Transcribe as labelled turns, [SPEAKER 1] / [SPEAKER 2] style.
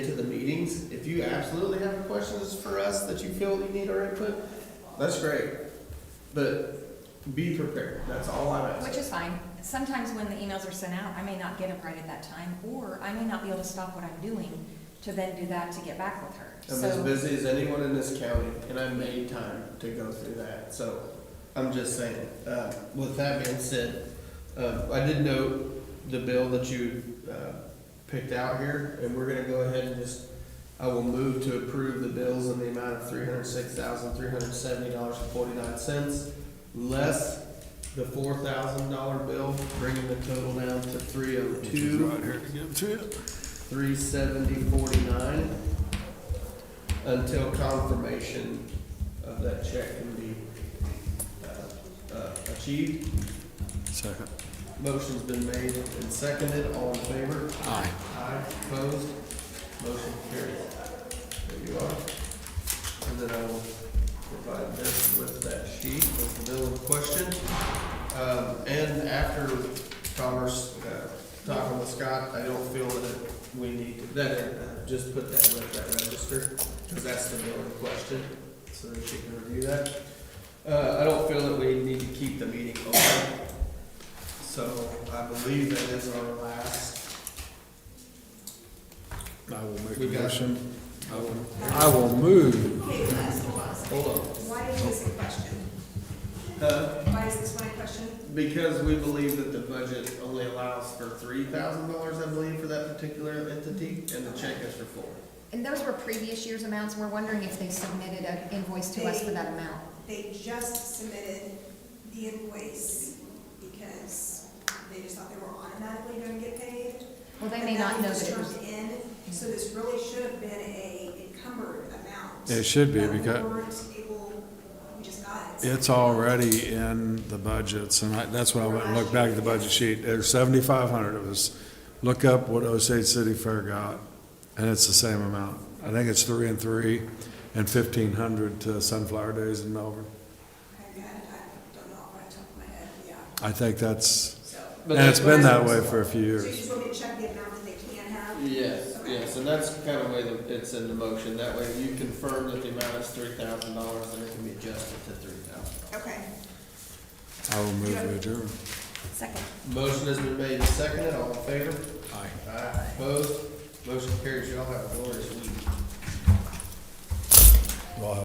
[SPEAKER 1] you absolutely have questions for us that you feel you need our input, that's great. But be prepared, that's all I'm asking.
[SPEAKER 2] Which is fine. Sometimes when the emails are sent out, I may not get them right at that time, or I may not be able to stop what I'm doing to then do that to get back with her.
[SPEAKER 1] I'm as
[SPEAKER 2] So,
[SPEAKER 1] busy as anyone in this county, and I made time to go through that, so I'm just saying. Uh, with that being said, uh, I did note the bill that you, uh, picked out here, and we're gonna go ahead and just, I will move to approve the bills in the amount of three hundred six thousand, three hundred seventy dollars and forty-nine cents, less the four thousand dollar bill, bringing the total down to three oh two. Three seventy forty-nine until confirmation of that check can be uh, uh, achieved.
[SPEAKER 3] Second.
[SPEAKER 1] Motion's been made and seconded, all in favor?
[SPEAKER 3] Aye.
[SPEAKER 1] Aye, opposed, motion carried. There you are. And then I will provide this with that sheet with the bill in question. Um, and after Commerce, uh, talking with Scott, I don't feel that it- we need to, that, uh, just put that with that register, cause that's the bill in question, so that she can review that. Uh, I don't feel that we need to keep the meeting open. So I believe that is our last
[SPEAKER 3] I will make
[SPEAKER 1] We
[SPEAKER 3] a
[SPEAKER 1] got-
[SPEAKER 3] motion. I will- I will move.
[SPEAKER 4] Okay, let's hold on a second.
[SPEAKER 1] Hold on.
[SPEAKER 4] Why is this a question?
[SPEAKER 1] Uh,
[SPEAKER 4] Why is this one a question?
[SPEAKER 1] because we believe that the budget only allows for three thousand dollars, I believe, for that particular entity, and the check is for four.
[SPEAKER 2] and those were previous year's amounts. We're wondering if they submitted an invoice to us for that amount.
[SPEAKER 4] They just submitted the invoice because they just thought they were automatically going to get paid.
[SPEAKER 2] Well, they may not know
[SPEAKER 4] But
[SPEAKER 2] that it
[SPEAKER 4] that was
[SPEAKER 2] was,
[SPEAKER 4] turned in, so this really should have been a encumbered amount.
[SPEAKER 3] It should be,
[SPEAKER 4] that we
[SPEAKER 3] because-
[SPEAKER 4] weren't able, we just got it.
[SPEAKER 3] It's already in the budgets, and I, that's why I went and looked back at the budget sheet. There's seventy-five hundred of us. Look up what Osage City Fair got, and it's the same amount. I think it's three and three, and fifteen hundred to Sunflower Days in Melbourne.
[SPEAKER 4] I got it, I don't know off the top of my head, yeah,
[SPEAKER 3] I think that's,
[SPEAKER 4] so.
[SPEAKER 1] But
[SPEAKER 3] and it's been that
[SPEAKER 1] that's-
[SPEAKER 3] way for a few
[SPEAKER 4] So you
[SPEAKER 3] years.
[SPEAKER 4] just want me to check the amount that they can have?
[SPEAKER 1] Yes,
[SPEAKER 4] Okay.
[SPEAKER 1] yes, and that's kind of way that it's in the motion, that way you confirm that the amount is three thousand dollars, and it can be adjusted to three thousand.
[SPEAKER 4] Okay.
[SPEAKER 3] I will move to adjourn.
[SPEAKER 2] second.
[SPEAKER 1] Motion has been made and seconded, all in favor?
[SPEAKER 3] Aye.
[SPEAKER 1] Aye. Opposed? Motion carries, y'all have a glorious week.